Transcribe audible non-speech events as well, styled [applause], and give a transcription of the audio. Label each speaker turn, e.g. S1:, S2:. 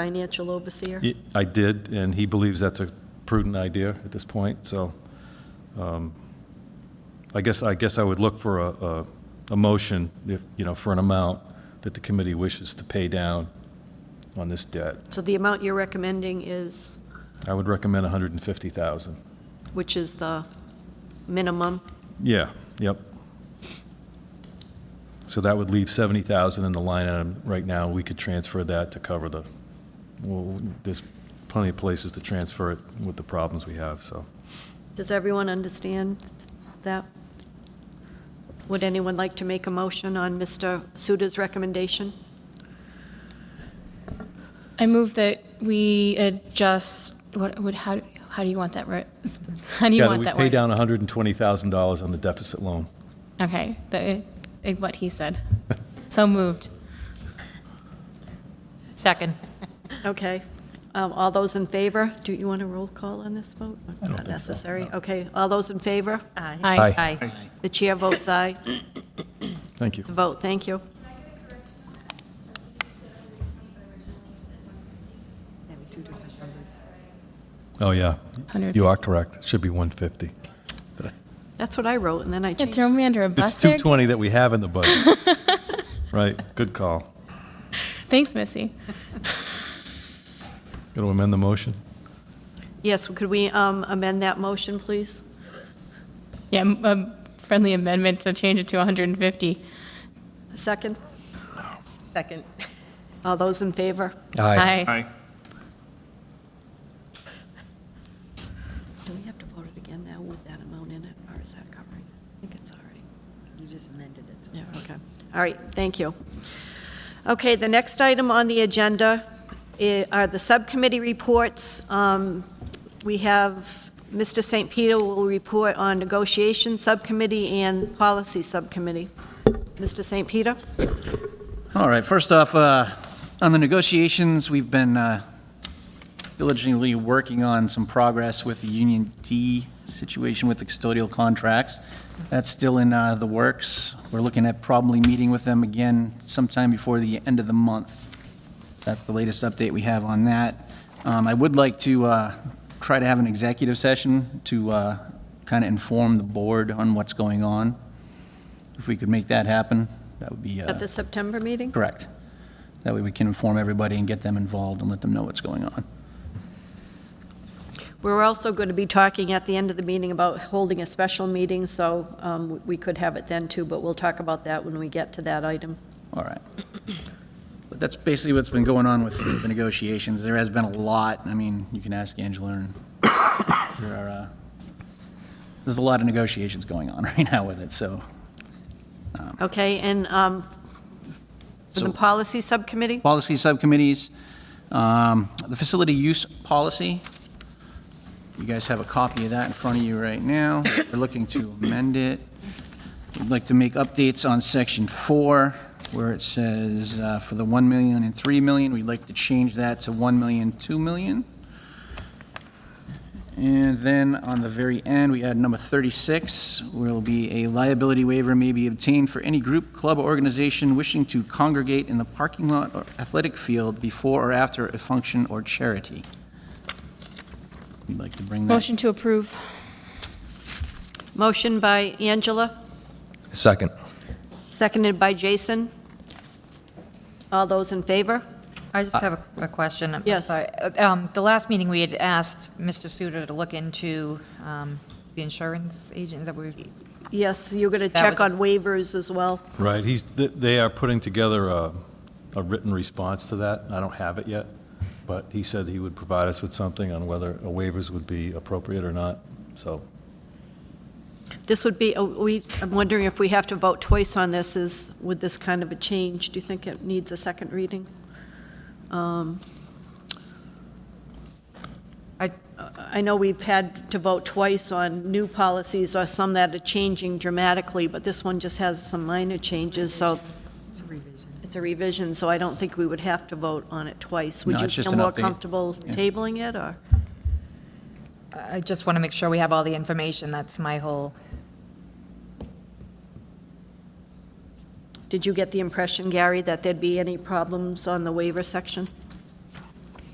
S1: financial overseer?
S2: Ye- I did, and he believes that's a prudent idea at this point, so um, I guess, I guess I would look for a, a, a motion, if, you know, for an amount that the committee wishes to pay down on this debt.
S1: So the amount you're recommending is,
S2: I would recommend 150,000.
S1: which is the minimum?
S2: Yeah, yep. So that would leave 70,000 in the line item right now. We could transfer that to cover the, well, there's plenty of places to transfer it with the problems we have, so.
S1: Does everyone understand that? Would anyone like to make a motion on Mr. Suda's recommendation?
S3: I move that we adjust, what, would, how, how do you want that, writ- [laughs] how do you
S2: Yeah,
S3: want that
S2: We pay
S3: word?
S2: down $120,000 on the deficit loan.
S3: Okay, the, eh, what he said. [laughs] So moved.
S4: Second.
S1: Okay. Um, All those in favor? Do you want a roll call on this vote? Not necessary. Okay. All those in favor?
S3: Aye.
S2: Aye.
S4: Aye.
S1: The chair votes aye.
S2: Thank you.
S1: It's a vote. Thank you.
S2: Oh, yeah.
S3: 150.
S2: You are correct. It should be 150.
S1: That's what I wrote, and then I
S3: You
S1: changed.
S3: throw me under a
S2: It's
S3: bus there?
S2: 220 that we have in the
S3: [laughs]
S2: budget. Right, good call.
S3: Thanks, Missy.
S2: Going to amend the motion?
S1: Yes, could we um, amend that motion, please?
S3: Yeah, m- a friendly amendment to change it to 150.
S1: Second?
S4: Second.
S1: All those in favor?
S3: Aye.
S1: Do we have to vote it again now with that amount in it, or is that covering? I think it's all right.
S5: You just amended it, so
S1: Yeah, okay. All right, thank you. Okay, the next item on the agenda i- are the subcommittee reports. Um, We have, Mr. St. Peter will report on negotiation subcommittee and policy subcommittee. Mr. St. Peter?
S6: All right, first off, uh, on the negotiations, we've been uh, diligently working on some progress with the Union D situation with the custodial contracts. That's still in uh, the works. We're looking at probably meeting with them again sometime before the end of the month. That's the latest update we have on that. Um, I would like to uh, try to have an executive session to kind of inform the board on what's going on. If we could make that happen, that would be. uh,
S1: At the September meeting?
S6: Correct. That way we can inform everybody and get them involved and let them know what's going on.
S1: We're also going to be talking at the end of the meeting about holding a special meeting, so um, we could have it then too, but we'll talk about that when we get to that item.
S6: All right. But that's basically what's been going on with the negotiations. There has been a lot. I mean, you can ask Angela and there are, uh, there's a lot of negotiations going on [laughs] right now with it, so.
S1: Okay, and um, for the
S6: So-
S1: policy subcommittee?
S6: Policy subcommittees, um, the facility use policy. You guys have a copy of that in front of you right now. We're looking to amend it. We'd like to make updates on section four, where it says, uh, for the 1 million and 3 million, we'd like to change that to 1 million, 2 million. And then on the very end, we add number 36, will be a liability waiver may be obtained for any group, club, or organization wishing to congregate in the parking lot or athletic field before or after a function or charity. We'd like to bring that.
S3: Motion to approve.
S1: Motion by Angela,
S7: Second.
S1: seconded by Jason. All those in favor?
S4: I just have a- a question. I'm
S1: Yes.
S4: sorry. Uh, um, The last meeting, we had asked Mr. Suter to look into um, the insurance agent that we,
S1: Yes, you're going to
S4: That
S1: check
S4: was-
S1: on waivers as well.
S2: Right, he's, th- they are putting together a, a written response to that. I don't have it yet, but he said he would provide us with something on whether a waivers would be appropriate or not, so.
S1: This would be, uh, we, I'm wondering if we have to vote twice on this, is, with this kind of a change, do you think it needs a second reading?
S4: I-
S1: I know we've had to vote twice on new policies or some that are changing dramatically, but this one just has some minor changes, so. It's a revision. It's a revision, so I don't think we would have to vote on it twice.
S6: No,
S1: Would you
S6: it's just
S1: feel
S6: an
S1: more
S6: update.
S1: comfortable tabling it, or?
S4: I just want to make sure we have all the information. That's my whole,
S1: Did you get the impression, Gary, that there'd be any problems on the waiver section?